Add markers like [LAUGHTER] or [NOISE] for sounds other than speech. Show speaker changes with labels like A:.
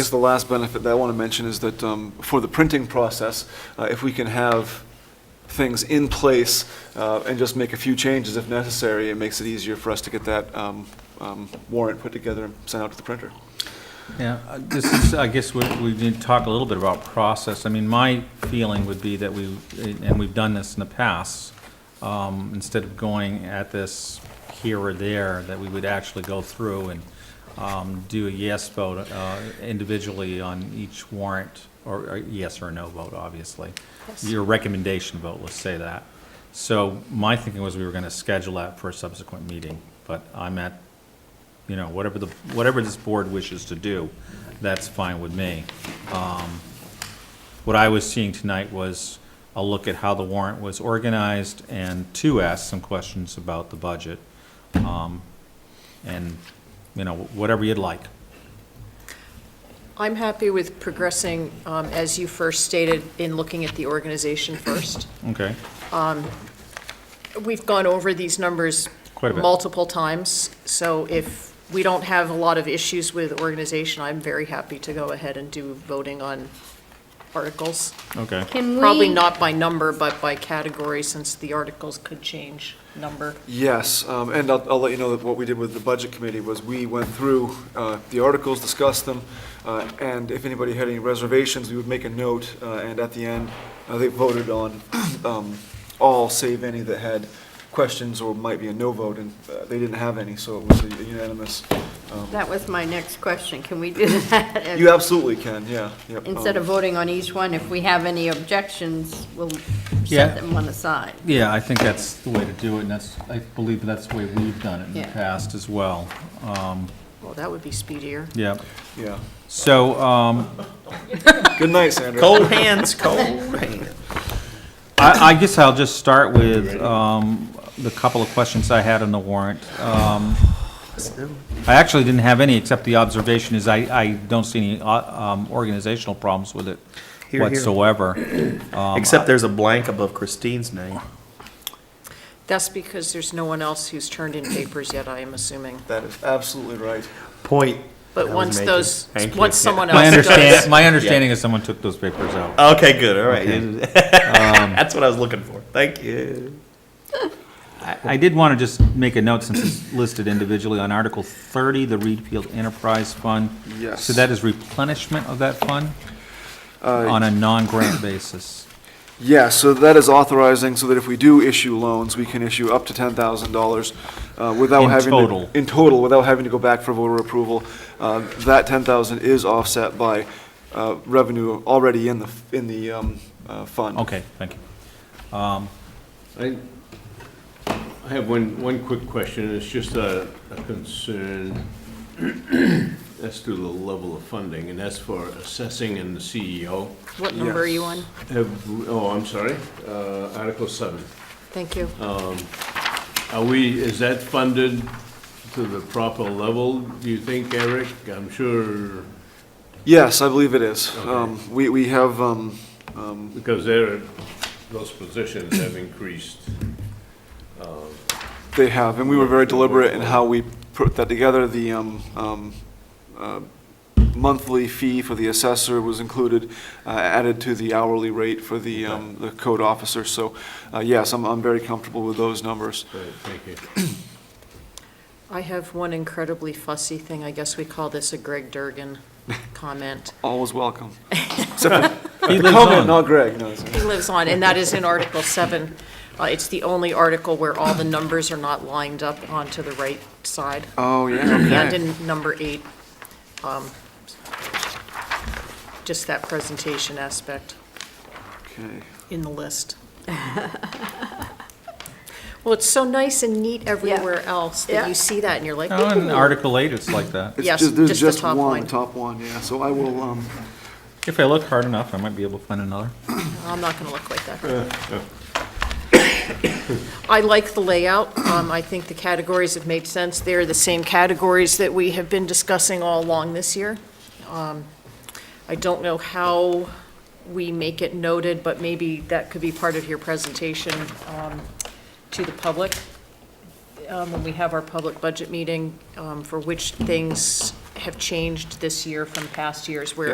A: This is the last benefit that I want to mention is that um, for the printing process, uh, if we can have things in place uh, and just make a few changes if necessary, it makes it easier for us to get that um, um, warrant put together and sent out to the printer.
B: Yeah, uh, this is, I guess we, we need to talk a little bit about process. I mean, my feeling would be that we, and we've done this in the past, um, instead of going at this here or there, that we would actually go through and, um, do a yes vote, uh, individually on each warrant, or, or yes or no vote, obviously. Your recommendation vote, let's say that. So my thinking was we were gonna schedule that for a subsequent meeting, but I'm at you know, whatever the, whatever this board wishes to do, that's fine with me. Um, What I was seeing tonight was a look at how the warrant was organized and to ask some questions about the budget. Um, And, you know, whatever you'd like.
C: I'm happy with progressing, um, as you first stated, in looking at the organization first.
B: Okay,
C: We've gone over these numbers
B: Quite a bit.
C: multiple times, so if we don't have a lot of issues with organization, I'm very happy to go ahead and do voting on articles.
B: okay.
D: Can we?
C: Probably not by number, but by category, since the articles could change number.
A: Yes, um, and I'll, I'll let you know that what we did with the Budget Committee was we went through uh, the articles, discussed them, uh, and if anybody had any reservations, we would make a note, uh, and at the end, uh, they voted on [CLEARS THROAT] um, all save any that had questions or might be a no vote, and uh, they didn't have any, so it was a unanimous. um,
D: That was my next question. Can we do [LAUGHS] that?
A: You absolutely can, yeah, yep. um,
D: Instead of voting on each one, if we have any objections, we'll
B: Yeah.
D: set them one aside.
B: Yeah, I think that's the way to do it, and that's, I believe that's the way we've done it in the
D: Yeah.
B: past as well. Um,
C: Well, that would be speedier.
B: Yeah,
A: Yeah.
B: so, um,
A: Good night, Sandra.
E: Cold hands, cold hands.
B: I, I guess I'll just start with, um, the couple of questions I had on the warrant. Um, I actually didn't have any, except the observation is I, I don't see any, uh, um, organizational problems with it
E: Here, here.
B: whatsoever.
E: Except there's a blank above Christine's name.
C: That's because there's no one else who's turned in papers yet, I am assuming.
A: That is absolutely right.
E: Point. I
C: But
E: was
C: once
E: making.
C: those,
E: Thank you.
C: once
E: Yeah.
C: someone
B: My
C: else does.
B: understanding, [LAUGHS] my understanding is someone took those papers out.
E: Okay, good, all right. [LAUGHS] That's what I was looking for. Thank you.
B: I, I did want to just make a note, since it's listed individually, on Article thirty, the Reed Field Enterprise Fund.
A: Yes.
B: So that is replenishment of that fund on a non-grant basis.
A: Yeah, so that is authorizing, so that if we do issue loans, we can issue up to ten thousand dollars uh, without
B: In
A: having. to-
B: total.
A: In total, without having to go back for voter approval. Uh, That ten thousand is offset by uh, revenue already in the, in the um, uh, fund.
B: Okay, thank you.
F: I, I have one, one quick question, it's just a, a concern [CLEARS THROAT] as to the level of funding, and that's for assessing and the E CEO.
C: What number are you on?
F: Have, oh, I'm sorry, uh, Article seven.
C: Thank you.
F: Are we, is that funded to the proper level, do you think, Eric? I'm sure,
A: Yes, I believe it is. Um, We, we have, um, um,
F: because there, those positions have increased.
A: they have, and we were very deliberate in how we put that together. The um, um, uh, monthly fee for the assessor was included, uh, added to the hourly rate for the, um, the code officer. So, uh, yes, I'm, I'm very comfortable with those numbers.
F: Right, Thank you.
C: I have one incredibly fussy thing. I guess we call this a Greg
D: [LAUGHS]
C: Durgan comment.
A: All is welcome.
B: He
A: The
B: lives
A: comment,
B: on.
A: not Greg, no. it's-
C: He lives on, and that is in Article 7. Uh, It's the only article where all the numbers are not lined up onto the right
D: [CLEARS THROAT]
C: side,
A: Oh,
C: and
A: yeah, okay.
C: in number 8. um, Just that presentation aspect
A: Okay.
C: in the
D: [LAUGHS]
C: list. Well, it's so nice and neat everywhere else that
D: Yeah.
C: you see that, and you're like,
B: Oh, in
C: "Ooh."
B: Article 8, it's like that.
A: It's
C: Yes,
A: ju-
C: just
A: There's
C: the
A: just
C: top
A: one,
C: line.
A: the top one, yeah. So I will, um,
B: If I look hard enough, I might be able to find another.
C: I'm not gonna look like that. I like the layout. Um, I think the categories have made sense. They're the same categories that we have been discussing all along this year. Um, I don't know how we make it noted, but maybe that could be part of your presentation, um, to the public. Um, when we have our public budget meeting, um, for which things have changed this year from past years, where